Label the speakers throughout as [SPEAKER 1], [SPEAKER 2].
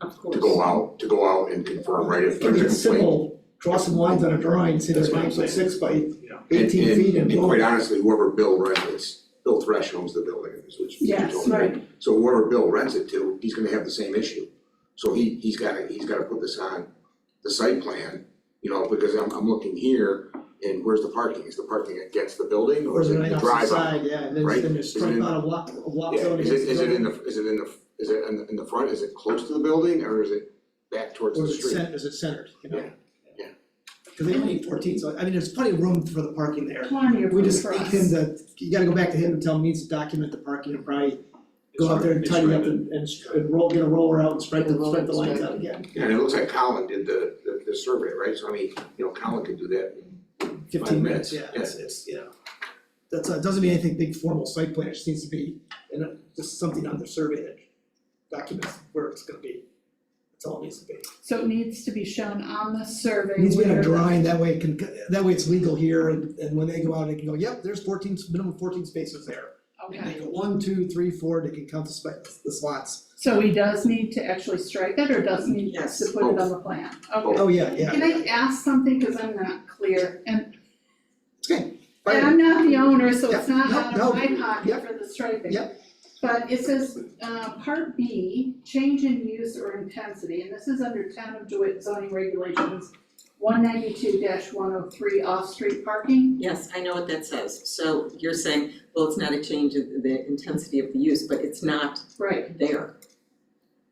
[SPEAKER 1] Of
[SPEAKER 2] to go
[SPEAKER 1] course.
[SPEAKER 2] out, to go out and confirm, right, if
[SPEAKER 3] Keep
[SPEAKER 2] there's a
[SPEAKER 3] it
[SPEAKER 2] complaint.
[SPEAKER 3] simple, draw some lines on a drawing, say there's
[SPEAKER 4] That's what I'm
[SPEAKER 3] nine foot six by
[SPEAKER 4] Yeah.
[SPEAKER 3] eighteen feet and
[SPEAKER 2] And
[SPEAKER 3] boom.
[SPEAKER 2] quite honestly, whoever Bill rents, it's Bill Thresh owns the building, is what you
[SPEAKER 1] Yes,
[SPEAKER 2] told me.
[SPEAKER 1] right.
[SPEAKER 2] So whoever Bill rents it to, he's gonna have the same issue. So he, he's gotta, he's gotta put this on the site plan, you know, because I'm, I'm looking here, and where's the parking? Is the parking against the building, or
[SPEAKER 3] Or
[SPEAKER 2] is
[SPEAKER 3] is
[SPEAKER 2] it
[SPEAKER 3] right
[SPEAKER 2] the
[SPEAKER 3] off the
[SPEAKER 2] drive out?
[SPEAKER 3] side, yeah, and then
[SPEAKER 2] right?
[SPEAKER 3] then
[SPEAKER 2] Is
[SPEAKER 3] there's
[SPEAKER 2] it
[SPEAKER 3] straight
[SPEAKER 2] in-
[SPEAKER 3] out a walk, a walk
[SPEAKER 2] Yeah,
[SPEAKER 3] zone.
[SPEAKER 2] is it,
[SPEAKER 3] against
[SPEAKER 2] is it in
[SPEAKER 3] building.
[SPEAKER 2] the, is it in the, is it in the, in the front, is it close to the building, or is it back towards
[SPEAKER 3] Or
[SPEAKER 2] the
[SPEAKER 3] is it
[SPEAKER 2] street?
[SPEAKER 3] cent, is it centered, you know?
[SPEAKER 2] Yeah, yeah.
[SPEAKER 3] Cause they only need fourteen, so I mean, there's plenty of room for the parking there.
[SPEAKER 1] Plenty of
[SPEAKER 3] We
[SPEAKER 1] room
[SPEAKER 3] just
[SPEAKER 1] for
[SPEAKER 3] need
[SPEAKER 1] us.
[SPEAKER 3] him to, you gotta go back to him and tell him he needs to document the parking and probably go out there and
[SPEAKER 4] It's
[SPEAKER 3] tidy up
[SPEAKER 4] right.
[SPEAKER 3] and and str- and roll, get a roller out and spread the,
[SPEAKER 5] Get a roller,
[SPEAKER 3] spread the lines
[SPEAKER 5] spread
[SPEAKER 3] out again.
[SPEAKER 2] Yeah, and it looks like Colin did the, the, the survey, right? So I mean, you know, Colin could do that.
[SPEAKER 3] Fifteen
[SPEAKER 2] minutes,
[SPEAKER 3] minutes, yeah,
[SPEAKER 2] yeah.
[SPEAKER 3] it's, it's, you know. That's, uh, doesn't mean anything big formal site plan, it just needs to be, and uh, just something on the survey that documents where it's gonna be. That's all it needs to be.
[SPEAKER 1] So it needs to be shown on the survey
[SPEAKER 3] It needs to be on
[SPEAKER 1] where
[SPEAKER 3] a
[SPEAKER 1] the-
[SPEAKER 3] drawing, that way it can, that way it's legal here, and, and when they go out, they can go, yep, there's fourteen, minimum fourteen spaces there. And
[SPEAKER 1] Okay,
[SPEAKER 3] they go one, two, three, four, they can count the spa, the slots.
[SPEAKER 1] so he does need to actually strike it or does he need us
[SPEAKER 3] Yes.
[SPEAKER 1] to put it on the plan? Okay.
[SPEAKER 3] Oh, yeah, yeah.
[SPEAKER 1] Can I ask something, cause I'm not clear, and,
[SPEAKER 3] Fire.
[SPEAKER 1] and I'm not the owner, so it's
[SPEAKER 3] Yeah,
[SPEAKER 1] not
[SPEAKER 3] no,
[SPEAKER 1] out
[SPEAKER 3] no,
[SPEAKER 1] of my
[SPEAKER 3] yeah.
[SPEAKER 1] pocket for the striping.
[SPEAKER 3] Yeah.
[SPEAKER 1] But it says, uh, part B, change in use or intensity, and this is under town of DeWitt zoning regulations, one ninety-two one oh three off-street parking,
[SPEAKER 5] Yes, I know what that says, so you're saying, well, it's not a change in the intensity of the use, but it's not
[SPEAKER 1] right,
[SPEAKER 5] there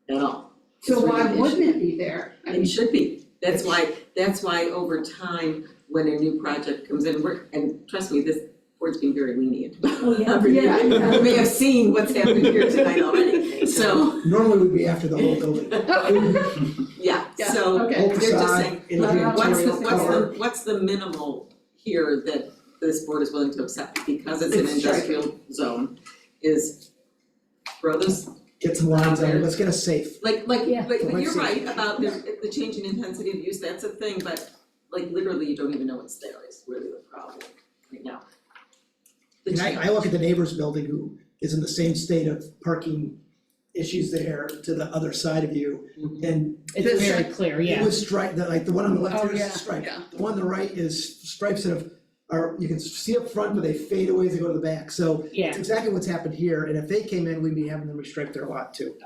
[SPEAKER 5] at all.
[SPEAKER 1] so
[SPEAKER 5] It's
[SPEAKER 1] why
[SPEAKER 5] really an
[SPEAKER 1] wouldn't
[SPEAKER 5] issue.
[SPEAKER 1] it be there? I mean,
[SPEAKER 5] It should be, that's why, that's why over time, when a new project comes in, we're, and trust me, this board's been very lenient.
[SPEAKER 1] Well, Oh, yeah,
[SPEAKER 5] Every year.
[SPEAKER 1] yeah.
[SPEAKER 5] You may have seen what's happened here tonight already, so,
[SPEAKER 3] Normally would be after the whole building,
[SPEAKER 5] yeah,
[SPEAKER 1] Yeah,
[SPEAKER 5] so,
[SPEAKER 1] okay.
[SPEAKER 3] whole
[SPEAKER 5] they're just
[SPEAKER 3] facade,
[SPEAKER 5] saying,
[SPEAKER 3] it'll be
[SPEAKER 1] uh,
[SPEAKER 5] what's the,
[SPEAKER 3] material
[SPEAKER 5] what's
[SPEAKER 3] cover.
[SPEAKER 5] the, what's the minimal here that this board is willing to accept, because it's an
[SPEAKER 1] It's striking.
[SPEAKER 5] industrial zone, is throw those,
[SPEAKER 3] Get some lines on it, let's get a safe.
[SPEAKER 5] like, like,
[SPEAKER 1] Yeah.
[SPEAKER 5] but but
[SPEAKER 3] Let's
[SPEAKER 5] you're
[SPEAKER 3] see.
[SPEAKER 5] right about the, the change in intensity of use, that's a thing, but like literally you don't even know it's there is really the problem right now. The
[SPEAKER 3] And I, I look at the neighbor's building who is in the same state of parking issues there to the other side of you.
[SPEAKER 5] change.
[SPEAKER 3] And
[SPEAKER 6] It's
[SPEAKER 3] Mary,
[SPEAKER 6] very clear,
[SPEAKER 3] it
[SPEAKER 6] Mm-hmm. Oh, yeah.
[SPEAKER 3] was stripe, the, like, the one on the left
[SPEAKER 6] Oh,
[SPEAKER 3] here
[SPEAKER 6] yeah,
[SPEAKER 3] is striped.
[SPEAKER 1] yeah.
[SPEAKER 3] The one on the right is stripes that have, are, you can see up front, but they fade away as they go to the back, so
[SPEAKER 6] Yeah,
[SPEAKER 3] it's exactly what's happened here, and if they came in, we'd be having them restrict their lot too.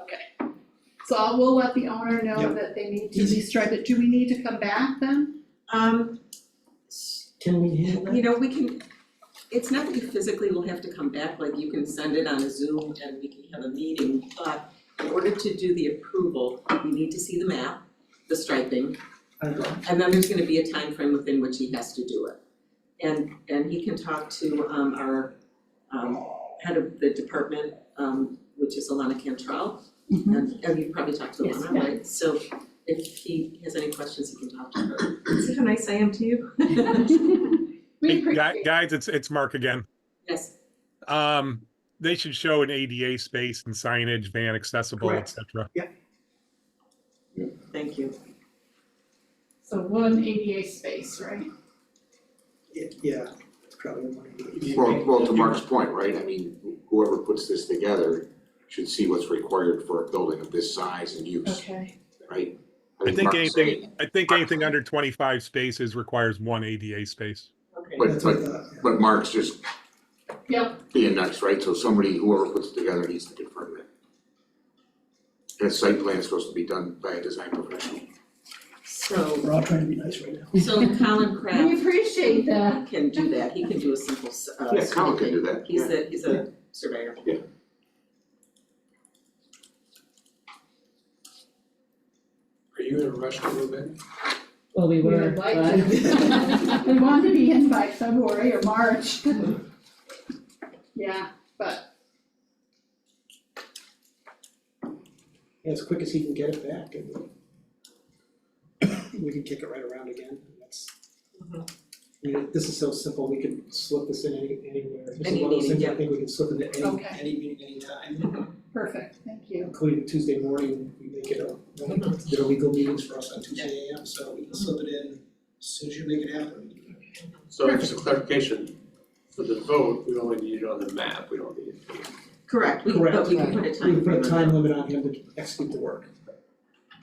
[SPEAKER 1] So I will let the owner know
[SPEAKER 3] Yep.
[SPEAKER 1] that they need to be striped, do we need to come back then?
[SPEAKER 5] Um,
[SPEAKER 3] Can we handle
[SPEAKER 5] you know, we can, it's not that you physically will have to come back, like you can send it on a Zoom and we can have a meeting, but in order to do the approval, we need to see the map, the striping,
[SPEAKER 3] I don't know.
[SPEAKER 5] and then there's gonna be a time frame within which he has to do it. And and he can talk to um our um head of the department, um which is Alana Cantrell.
[SPEAKER 1] Mhm.
[SPEAKER 5] And and you probably talked to
[SPEAKER 6] Yes,
[SPEAKER 5] Alana, right? So if he has any questions, he can talk to her. See how nice I am to you?
[SPEAKER 1] We
[SPEAKER 7] Hey, gui-
[SPEAKER 1] appreciate it,
[SPEAKER 7] Guys, it's, it's Mark again.
[SPEAKER 5] Yes,
[SPEAKER 7] Um, they should show an ADA space and signage, van accessible, et
[SPEAKER 3] Correct.
[SPEAKER 7] cetera.
[SPEAKER 5] thank you.
[SPEAKER 1] so one ADA space, right?
[SPEAKER 3] Yeah, Yeah, it's probably one of these.
[SPEAKER 2] Well, well, to Mark's point, right, I mean, whoever puts this together should see what's required for a building of this size and use,
[SPEAKER 1] Okay.
[SPEAKER 2] right?
[SPEAKER 7] I think
[SPEAKER 2] Mark's
[SPEAKER 7] anything,
[SPEAKER 2] saying-
[SPEAKER 7] I think anything under twenty-five spaces requires one ADA space.
[SPEAKER 5] Okay.
[SPEAKER 2] But-
[SPEAKER 3] That's what I thought, yeah.
[SPEAKER 2] But Mark's just
[SPEAKER 1] Yep,
[SPEAKER 2] being nice, right, so somebody, whoever puts it together needs to confirm that. And a site plan is supposed to be done by a design professional.
[SPEAKER 5] So
[SPEAKER 3] We're all trying to be nice right now.
[SPEAKER 5] so Colin
[SPEAKER 1] we
[SPEAKER 5] Kraft
[SPEAKER 1] appreciate that.
[SPEAKER 5] can do that. He can do a simple s- uh
[SPEAKER 2] Yeah, Colin can do
[SPEAKER 5] survey.
[SPEAKER 2] that,
[SPEAKER 5] He's
[SPEAKER 2] yeah.
[SPEAKER 5] a he's a surveyor.
[SPEAKER 4] Are you in a rush to move in?
[SPEAKER 6] well, we
[SPEAKER 1] We
[SPEAKER 6] were,
[SPEAKER 1] would like
[SPEAKER 6] but
[SPEAKER 1] to. We want to be in by February or March. Yeah, but
[SPEAKER 3] As quick as he can get it back and we can kick it right around again, that's.
[SPEAKER 5] Mhm.
[SPEAKER 3] I mean, this is so simple, we could slip this in any, anywhere, this is
[SPEAKER 5] Any
[SPEAKER 3] one of those
[SPEAKER 5] meeting,
[SPEAKER 3] things I
[SPEAKER 5] yeah.
[SPEAKER 3] think we can slip into any,
[SPEAKER 1] Okay.
[SPEAKER 3] any meeting, any time.
[SPEAKER 1] perfect, thank you.
[SPEAKER 3] Including Tuesday morning, we make it a,
[SPEAKER 5] Mm-hmm.
[SPEAKER 3] there are legal meetings for us on Tuesday AM, so we can slip it in as soon as you make it happen.
[SPEAKER 4] So just a clarification, for the vote, we only need it on the map, we don't need it.
[SPEAKER 5] Correct, we
[SPEAKER 3] Correct.
[SPEAKER 5] but we can put a
[SPEAKER 3] We
[SPEAKER 5] time
[SPEAKER 3] can put
[SPEAKER 5] frame
[SPEAKER 3] a
[SPEAKER 5] on
[SPEAKER 3] time
[SPEAKER 5] that.
[SPEAKER 3] limit on him to execute the work.